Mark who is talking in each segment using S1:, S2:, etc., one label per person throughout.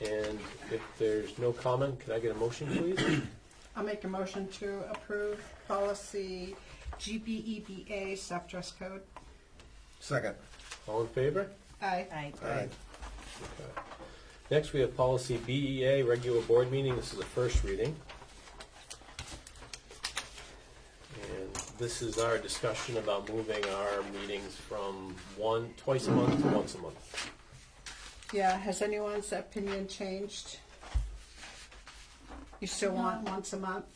S1: And if there's no comment, could I get a motion, please?
S2: I'll make a motion to approve policy E GBEBA, staff dress code.
S3: Second.
S1: All in favor?
S2: Aye.
S4: Aye.
S3: Aye.
S1: Okay. Next, we have policy BEA, regular board meeting. This is the first reading. And this is our discussion about moving our meetings from one, twice a month to once a month.
S2: Yeah, has anyone's opinion changed? You still want once a month?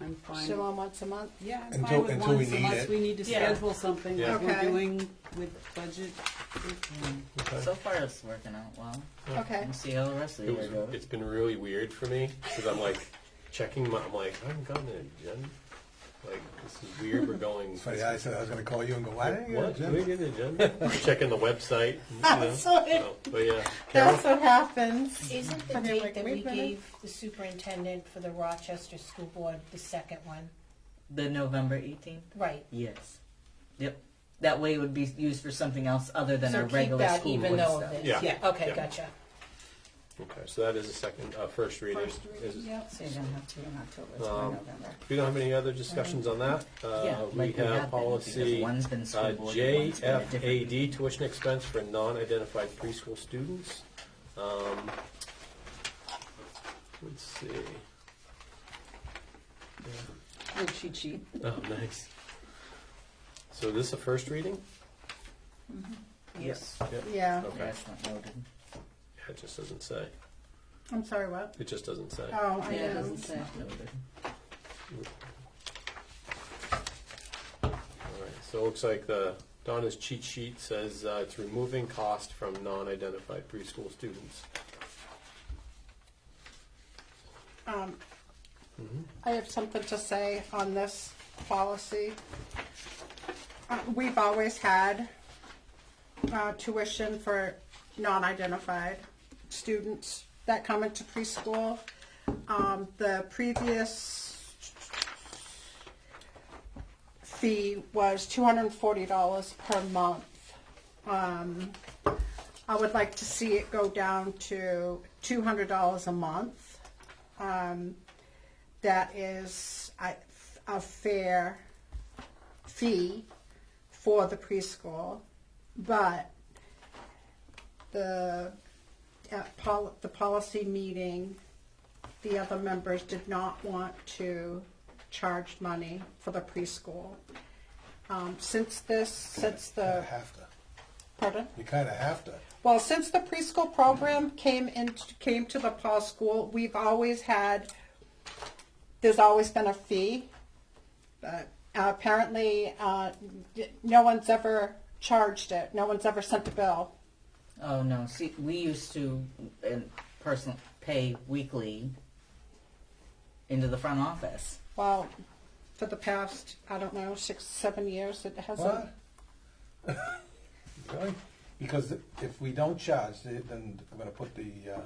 S5: I'm
S2: Still
S5: fine.
S2: want once a month?
S5: Yeah, I'm
S3: Until-
S5: fine with
S3: until we
S5: once
S3: need
S5: unless
S3: it.
S5: we need to
S4: Yeah.
S5: schedule something
S1: Yeah.
S5: like we're
S2: Okay.
S5: doing with budget.
S1: Okay.
S4: So far, it's working out well.
S2: Okay.
S4: We'll see how the rest of the
S1: It
S4: year
S1: was,
S4: goes.
S1: it's been really weird for me because I'm like checking my, I'm like, I haven't gotten an agenda. Like, this is weird. We're going.
S3: It's funny, I said I was gonna call you and go, why didn't you get
S1: What?
S3: a
S1: Did we
S3: gym?
S1: get an agenda? Checking the website. you know.
S2: Sorry.
S1: No, But yeah. Carol?
S2: That's what happens.
S6: Isn't the
S2: And they're like,
S6: date that we
S2: "Wait a minute."
S6: gave the superintendent for the Rochester School Board the second one?
S4: The November 18th?
S6: Right.
S4: Yes. Yep. That way it would be used for something else other than
S6: So
S4: our
S6: keep
S4: regular
S6: that
S4: school
S6: even
S4: board
S6: though
S4: stuff.
S6: this.
S1: Yeah.
S6: Okay,
S1: Yeah.
S6: gotcha.
S1: Okay, so that is a second, uh, first reading.
S2: First
S1: Is-
S2: reading, yep.
S5: So you don't have to in October,
S1: it's more Um, We don't have any other discussions on that. Uh,
S4: yeah,
S1: We
S4: like we have
S1: have
S4: been,
S1: policy
S4: because
S1: uh,
S4: one's been school board, one's been a different
S1: JFAD,
S4: meeting.
S1: tuition expense for non-identified preschool students. Um, Let's see.
S5: cheat sheet.
S1: Oh, nice. So this a first reading?
S4: Yes.
S2: Yeah,
S1: Okay.
S4: That's not noted.
S1: Yeah, It just doesn't say.
S2: I'm sorry, what?
S1: It just doesn't say.
S2: Oh, I
S5: Yeah, it
S2: know.
S5: doesn't say.
S4: Not noted.
S1: All right, so it looks like the, Donna's cheat sheet says uh, it's removing cost from non-identified preschool students.
S2: Um, I have something to say on this policy. Uh, We've always had uh, tuition for non-identified students that come into preschool. Um, The previous fee was $240 per month. Um, I would like to see it go down to $200 a month um, that is a, a fair fee for the preschool, but the at pol- the policy meeting, the other members did not want to charge money for the preschool. Um, since this, since
S3: You
S2: the
S3: Uh, have to.
S2: pardon.
S3: You kinda have to.
S2: Well, since the preschool program came in, came to the Paul School, we've always had, there's always been a fee. But apparently, uh, no one's ever charged it. No one's ever sent a bill.
S4: Oh no! See, we used to and personal pay weekly into the front office.
S2: Well, for the past, I don't know, six, seven years, it hasn't.
S3: What? Really? Because if we don't charge, then I'm gonna put the uh,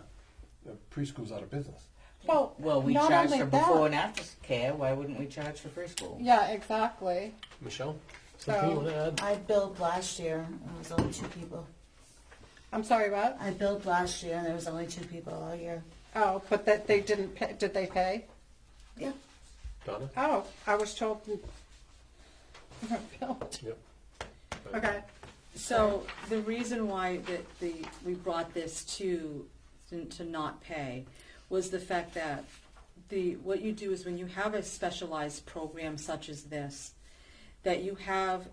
S3: the preschools out of business.
S2: Well,
S4: Well, we
S2: not
S4: charge
S2: only
S4: for
S2: that-
S4: before and after care. Why wouldn't we charge for preschool?
S2: Yeah, exactly.
S1: Michelle, something you
S2: So-
S1: want to add?
S7: I billed last year, and it was only two people.
S2: I'm sorry, what?
S7: I billed last year, and there was only two people all year.
S2: Oh, but that they didn't, pay, did they pay?
S7: Yeah.
S1: Donna?
S2: Oh, I was told. Bill.
S1: Yep.
S2: Okay.
S5: So the reason why that the, we brought this to, to not pay was the fact that the, what you do is when you have a specialized program such as this, that you have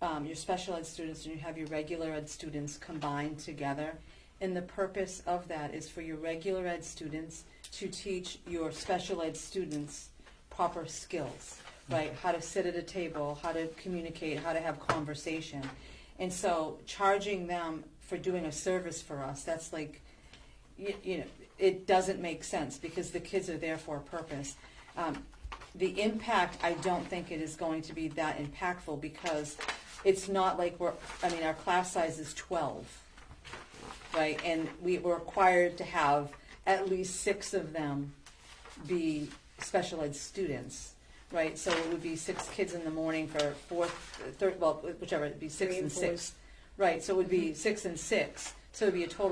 S5: um, your special ed students and you have your regular ed students combined together. And the purpose of that is for your regular ed students to teach your special ed students proper skills, right? How to sit at a table, how to communicate, how to have conversation. And so charging them for doing a service for us, that's like, you, you know, it doesn't make sense because the kids are there for a purpose. Um, the impact, I don't think it is going to be that impactful because it's not like we're, I mean, our class size is 12, right? And we were required to have at least six of them be special ed students, right? So it would be six kids in the morning for fourth, third, well, whichever, it'd be six
S6: Three
S5: and
S6: and fours.
S5: six. Right, so it would be six and six, so it'd be a total